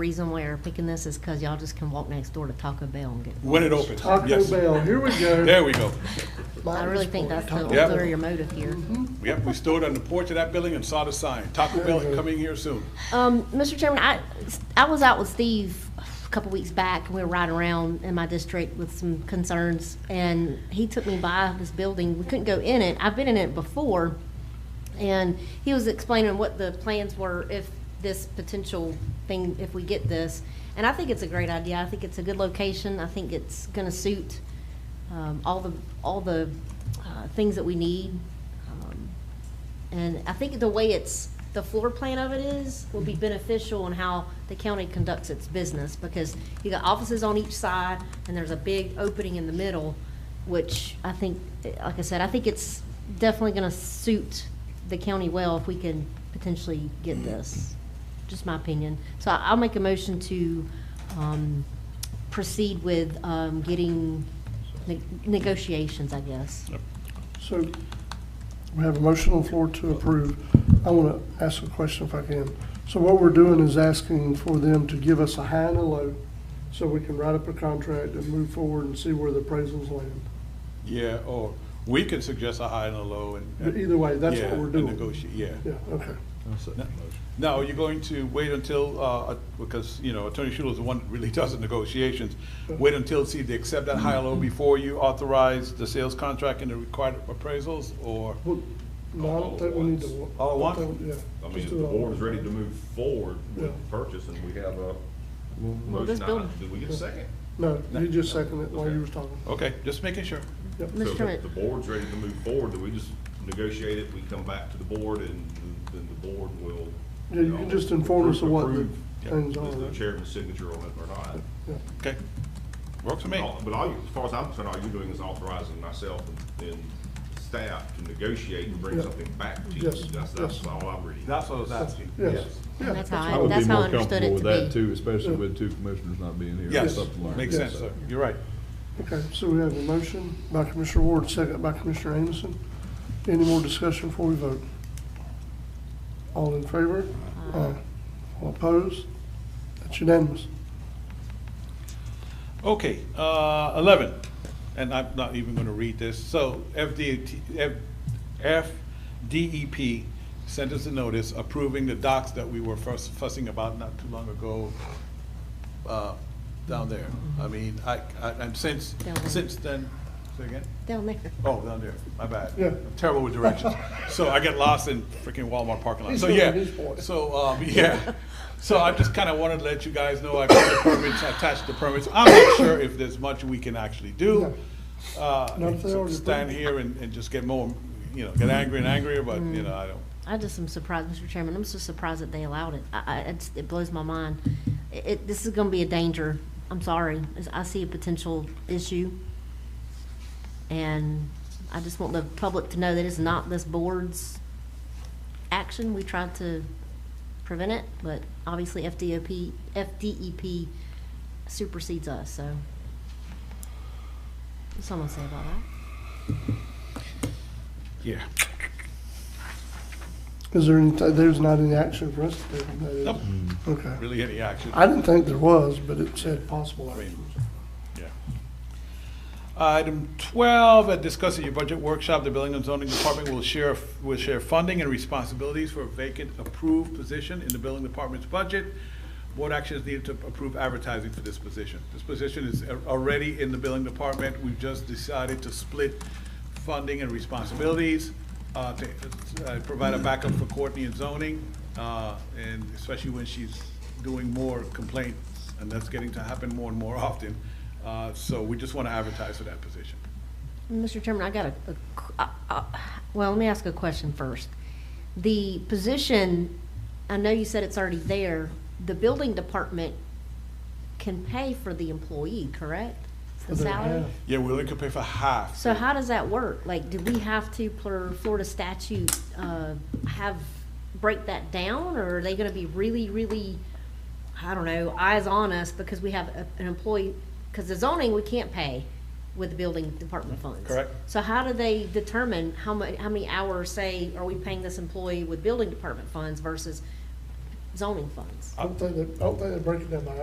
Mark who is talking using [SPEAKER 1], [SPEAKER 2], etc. [SPEAKER 1] Reason why we're picking this is because y'all just can walk next door to Taco Bell and get.
[SPEAKER 2] When it opens,
[SPEAKER 3] Taco
[SPEAKER 2] yes.
[SPEAKER 3] Bell, here we go.
[SPEAKER 2] There we go.
[SPEAKER 1] I really think that's the
[SPEAKER 3] Taco
[SPEAKER 2] Yeah.
[SPEAKER 3] Bell.
[SPEAKER 1] ulterior motive here.
[SPEAKER 2] Yep, we stood on the porch of that building and saw the sign, Taco Bell
[SPEAKER 3] Uh-huh.
[SPEAKER 2] coming here soon.
[SPEAKER 1] Um, Mr. Chairman, I, I was out with Steve a couple weeks back, and we were riding around in my district with some concerns, and he took me by this building. We couldn't go in it. I've been in it before, and he was explaining what the plans were if this potential thing, if we get this. And I think it's a great idea. I think it's a good location. I think it's gonna suit, um, all the, all the, uh, things that we need. Um, and I think the way it's, the floor plan of it is, will be beneficial in how the county conducts its business, because you got offices on each side, and there's a big opening in the middle, which I think, eh, like I said, I think it's definitely gonna suit the county well if we can potentially get this, just my opinion. So I- I'll make a motion to, um, proceed with, um, getting ne- negotiations, I guess.
[SPEAKER 3] So we have a motion on the floor to approve. I want to ask a question if I can. So what we're doing is asking for them to give us a high and a low so we can write up a contract and move forward and see where the appraisals land.
[SPEAKER 2] Yeah, or we can suggest a high and a low and.
[SPEAKER 3] But either way, that's what
[SPEAKER 2] Yeah,
[SPEAKER 3] we're
[SPEAKER 2] and
[SPEAKER 3] doing.
[SPEAKER 2] Negotiate, yeah.
[SPEAKER 3] Yeah, okay.
[SPEAKER 2] Now, you're going to wait until, uh, because, you know, Attorney Schuler's the one that really does the negotiations.
[SPEAKER 3] Uh-huh.
[SPEAKER 2] Wait until, see, if they accept that high and
[SPEAKER 3] Mm-hmm.
[SPEAKER 2] low before you authorize the sales contract and the required appraisals, or?
[SPEAKER 3] Well, No, I don't think we need to.
[SPEAKER 2] All at once?
[SPEAKER 3] I think- Yeah.
[SPEAKER 4] I mean,
[SPEAKER 3] just
[SPEAKER 4] if the
[SPEAKER 3] do it all at
[SPEAKER 4] board is
[SPEAKER 3] once.
[SPEAKER 4] ready to move forward
[SPEAKER 3] Yeah.
[SPEAKER 4] with the purchase and we have a
[SPEAKER 1] this
[SPEAKER 4] motion,
[SPEAKER 1] building-
[SPEAKER 4] I- do we get a second?
[SPEAKER 3] No, you just seconded it while you was talking.
[SPEAKER 2] Okay, just making sure.
[SPEAKER 4] So
[SPEAKER 1] Mr. Chairman.
[SPEAKER 4] if the board's ready to move forward, do we just negotiate it, we come back to the board and th- then the board will.
[SPEAKER 3] Yeah, you can just inform us of what the
[SPEAKER 4] approve-
[SPEAKER 3] things
[SPEAKER 4] Is the
[SPEAKER 3] are.
[SPEAKER 4] chairman's signature on it or not?
[SPEAKER 3] Yeah.
[SPEAKER 2] Okay, works for me.
[SPEAKER 4] All- But all you, as far as I'm concerned, all you're doing is authorizing myself and- and staff to negotiate and bring
[SPEAKER 3] Yeah.
[SPEAKER 4] something back to you.
[SPEAKER 3] Yes,
[SPEAKER 4] That's, that's
[SPEAKER 3] yes.
[SPEAKER 4] all I'm reading.
[SPEAKER 2] That's what I was asking.
[SPEAKER 3] Yes. Yeah,
[SPEAKER 1] That's
[SPEAKER 3] that's
[SPEAKER 1] how I-
[SPEAKER 5] I would be
[SPEAKER 1] that's how I
[SPEAKER 5] more
[SPEAKER 1] understood
[SPEAKER 5] comfortable
[SPEAKER 1] it to
[SPEAKER 5] with that
[SPEAKER 1] be.
[SPEAKER 5] too, especially with two commissioners not being here. or
[SPEAKER 2] Yes,
[SPEAKER 5] something like
[SPEAKER 2] makes
[SPEAKER 5] that.
[SPEAKER 2] sense, sir. You're right.
[SPEAKER 3] Okay, so we have a motion by Commissioner Ward, second by Commissioner Amison. Any more discussion before we vote? All in favor? Aye. All opposed? That's unanimous.
[SPEAKER 2] Okay, uh, eleven, and I'm not even gonna read this, so FDT, F- FDEP sent us a notice approving the docks that we were fuss- fussing about not too long ago, uh, down there. I mean, I, I, and since,
[SPEAKER 1] Down there.
[SPEAKER 2] since then, say again?
[SPEAKER 1] Down there.
[SPEAKER 2] Oh, down there, my bad.
[SPEAKER 3] Yeah.
[SPEAKER 2] I'm Terrible with directions. So I get lost in freaking Walmart parking lot.
[SPEAKER 3] He's
[SPEAKER 2] So,
[SPEAKER 3] doing
[SPEAKER 2] yeah,
[SPEAKER 3] his part.
[SPEAKER 2] so, um, yeah. So I just kind of wanted to let you guys know I got the permits, I attached the permits. I'm not sure if there's much we can actually do. Uh,
[SPEAKER 3] Not if they already
[SPEAKER 2] Stand
[SPEAKER 3] approved.
[SPEAKER 2] here and, and just get more, you know, get angry and angrier, but,
[SPEAKER 3] Mm.
[SPEAKER 2] you know, I don't.
[SPEAKER 1] I just am surprised, Mr. Chairman, I'm so surprised that they allowed it. I, I, it's, it blows my mind. It- It, this is gonna be a danger, I'm sorry, It's- I see a potential issue. And I just want the public to know that it's not this board's action, we tried to prevent it, but obviously FDOP, FDEP E supersedes us, so. What's someone say about that?
[SPEAKER 2] Yeah.
[SPEAKER 3] Is there any, there's not any action for us to take on that, is there?
[SPEAKER 2] Nope,
[SPEAKER 3] Okay.
[SPEAKER 2] really any action.
[SPEAKER 3] I didn't think there was, but it said possible
[SPEAKER 2] I mean,
[SPEAKER 3] actions.
[SPEAKER 2] yeah. Uh, Item twelve, at discussing your budget workshop, the Building and Zoning Department will share, will share funding and responsibilities for a vacant approved position in the Building Department's budget. Board action is needed to approve advertising for this position. This position is a- already in the Building Department. We've just decided to split funding and responsibilities, uh, to, uh, provide a backup for Courtney in zoning, uh, and especially when she's doing more complaints, and that's getting to happen more and more often. Uh, so we just want to advertise for that position.
[SPEAKER 1] Mr. Chairman, I got a, a qu- uh, uh, well, let me ask a question first. The position, I know you said it's already there, the building department can pay for the employee, correct? The
[SPEAKER 3] For their
[SPEAKER 1] salary?
[SPEAKER 3] half.
[SPEAKER 2] Yeah, we only could pay for half.
[SPEAKER 1] So how does that work? Like, do we have to, per Florida statute, uh, have, break that down? Or are they gonna be really, really, I don't know, eyes on us because we have a- an employee? Because the zoning, we can't pay with the building department funds.
[SPEAKER 2] Correct.
[SPEAKER 1] So how do they determine how mu, how many hours, say, are we paying this employee with building department funds versus zoning funds.
[SPEAKER 3] I don't think they, I don't think they break it down by